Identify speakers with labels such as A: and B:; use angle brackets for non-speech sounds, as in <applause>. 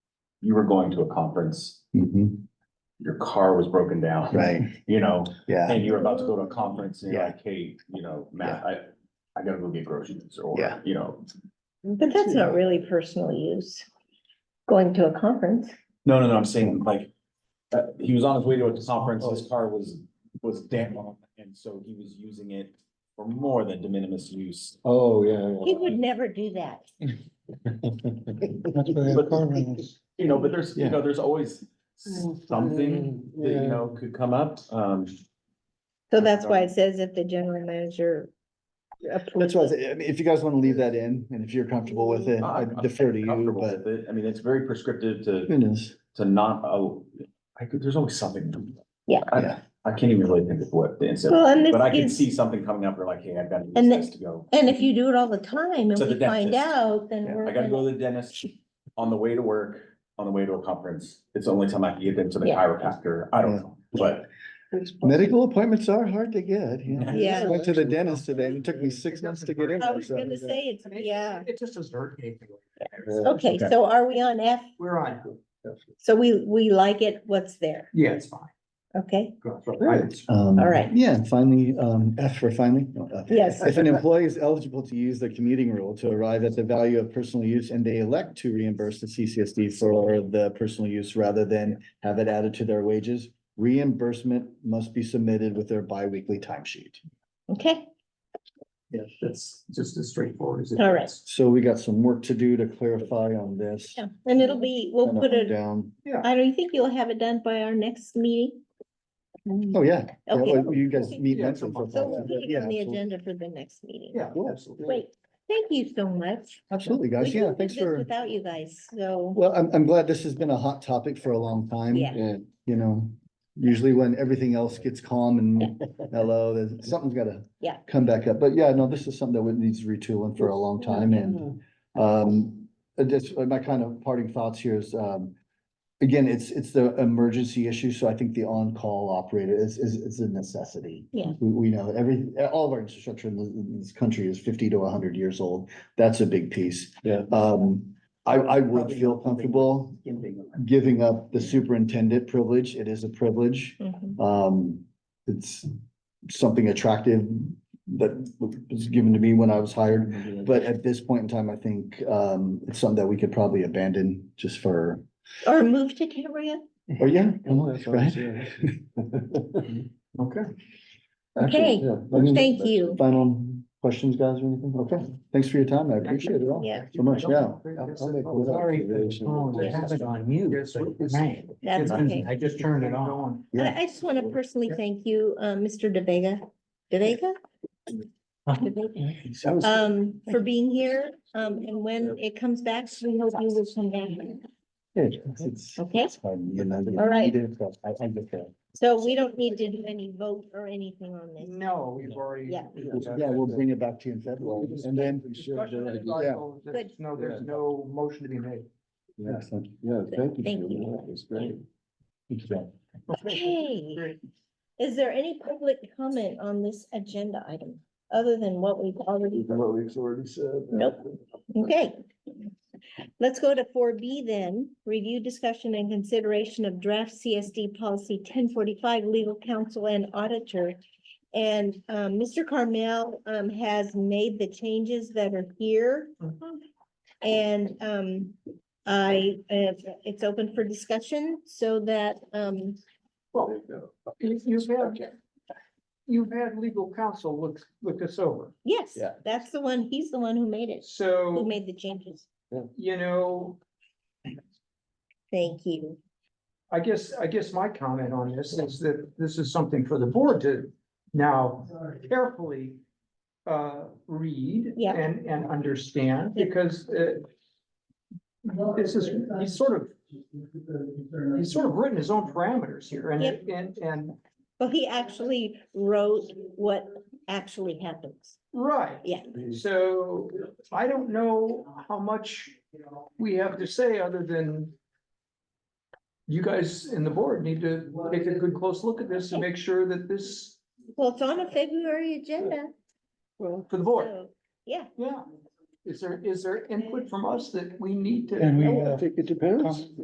A: you were going to a conference,
B: Mm-hmm.
C: Mhm.
A: your car was broken down.
C: Right,
A: You know,
C: yeah,
A: and you're about to go to a conference and you're
C: Yeah.
A: like, hey, you know, Matt, I, I gotta go get groceries or,
C: Yeah.
A: you know.
B: But that's not really personal use, going to a conference.
A: No, no, no, I'm saying like, uh, he was on his way to a conference,
C: Oh.
A: his car was, was damp and so he was using it for more than de minimis use.
D: Oh, yeah.
B: He would never do that. <laughs>
A: You know, but there's, you
D: Yeah.
A: know, there's always something that, you
D: Yeah.
A: know, could come up, um.
B: So that's why it says if the general manager. approves
C: That's why, I said, I mean, if you guys want to leave that in, and if you're comfortable with it, I
A: I'm- I'm
C: defer to you,
A: comfortable
C: but.
A: with it. I mean, it's very prescriptive to,
C: It is,
A: to not, oh, I could, there's always something.
B: Yeah.
A: I-
C: Yeah.
A: I can't even really think of what the incident.
B: Well, and this
A: But I can
B: is-
A: see something coming up, we're like, hey, I've got to use
B: And the-
A: this to go.
B: And if you do it all the time and
A: To the
B: we find
A: dentist.
B: out, then
C: Yeah,
B: we're.
A: I gotta go to the dentist on the way to work, on the way to a conference. It's the only time I can get into the
B: Yeah.
A: chiropractor. I don't
C: Yeah.
A: know, but
C: medical appointments are hard to get, you know.
B: Yeah.
C: Went to the dentist today, and it took me six months to get in.
B: I was gonna
C: so-
B: say, it's, yeah.
E: It just doesn't hurt anything.
B: Okay,
A: Okay.
B: so are we on F?
E: We're on.
B: So we, we like it, what's there?
E: Yeah, it's fine.
B: Okay,
E: Right.
C: Um,
B: All right.
C: Yeah, and finally, um, F for finally. no, uh,
B: yes,
C: If an employee is eligible to use the commuting rule to arrive at the value of personal use and they elect to reimburse the CCSD for the personal use rather than have it added to their wages, reimbursement must be submitted with their biweekly timesheet.
B: okay,
E: Yeah, that's just as straightforward as it.
B: All right.
E: is.
C: So we got some work to do to clarify on this.
B: yeah, and it'll be, we'll
C: Kinda
B: put it,
C: Down.
B: I don't think you'll have it done by our next meeting.
C: Oh, yeah. Yeah,
B: Okay.
C: well, You guys meet
E: Yeah,
C: monthly for.
B: So we'll
C: follow-up,
B: put it
C: yeah,
B: on the
C: absolutely.
B: agenda for the next meeting.
E: Yeah,
C: Cool.
E: absolutely.
B: Great, thank you so much.
C: Absolutely,
B: We
C: guys.
B: couldn't
C: Uh, Yeah,
B: do
C: thanks
B: this
C: for,
B: Without you guys, so,
C: well, I'm, I'm glad this has been a hot topic for a long time. Uh,
B: Yeah.
C: you know, usually when everything else gets calm <laughs> and mellow, then something's gotta
B: Yeah.
C: come back up. But yeah, no, this is something that would needs retooling for a long
B: Mm-hmm.
C: time and um, uh, just uh, my kind of parting thoughts here is, um, again, it's, it's the emergency issue, so I think the on-call operator is, is, is a necessity.
B: Yeah.
C: We, we know every, all of our infrastructure in this, in this country is fifty to hundred years old. That's a big piece.
D: Yeah.
C: Um, I, I would feel comfortable giving up the superintendent privilege. It is a privilege.
B: Mhm.
C: Um, it's something attractive that was given to me when I was hired. But at this point in time, I think um it's something that we could probably abandon just for,
B: or move to Cambria.
C: oh, yeah. right? <laughs>
D: Okay.
B: Okay,
C: Any
B: Thank you.
C: Final questions, guys, or anything? Okay, thanks for your time. I appreciate it all.
B: Yeah.
C: So much, yeah.
E: Sorry. Oh, they have it on mute. but man,
B: That's
E: it's-
B: okay.
E: I just turned it on.
C: Yeah.
B: I, I just want to personally thank you, uh, Mr. De Vega, De Vega, um, for being here. Um, and when it comes back, we hope you will come back.
C: Yeah, it's- it's-
B: Okay.
C: it's fine, you know, you
B: All right.
C: need it, but I- I get that.
B: So we don't need to do any vote or anything on this.
C: Mm-hmm.
E: No, we've already.
B: Yeah.
C: Yeah, we'll bring it back to you in February and then.
E: Discussion is like,
C: Yeah.
E: oh,
B: Good.
E: there's No, there's no motion to be made.
C: Excellent.
D: Yeah, thank you.
B: Thank
D: Julie.
B: you.
D: That was great.
B: Okay. Is there any public comment on this agenda item, other than what we've already?
D: Even what we've already said.
B: Nope. Okay. Let's go to four B then, review, discussion and consideration of draft CSD policy ten forty-five, legal counsel and auditor. And um, Mr. Carmel um, has made the changes that are here. And um, I, uh, it's open for discussion so that um,
E: Well, you- you've had, you've had legal counsel look, look this over.
B: yes,
C: Yeah.
B: that's the one, he's the one who made it, who
E: So,
B: made the changes.
E: you know,
B: Thank you.
E: I guess, I guess my comment on this is that this is something for the board to now carefully uh, read
B: Yeah.
E: and, and understand, because uh, this is, he's sort of, he's sort of written his own parameters here, and,
B: Yep.
E: and, and,
B: Well, he actually wrote what actually happens.
E: right.
B: Yeah.
E: So I don't know how much we have to say other than you guys in the board need to take a good, close look at this to make sure that this,
B: Well, it's on a February agenda,
E: for the board,
B: so, yeah,
E: yeah. Is there, is there input from us that we need to?
D: And we, uh,
E: know?
D: I think it depends.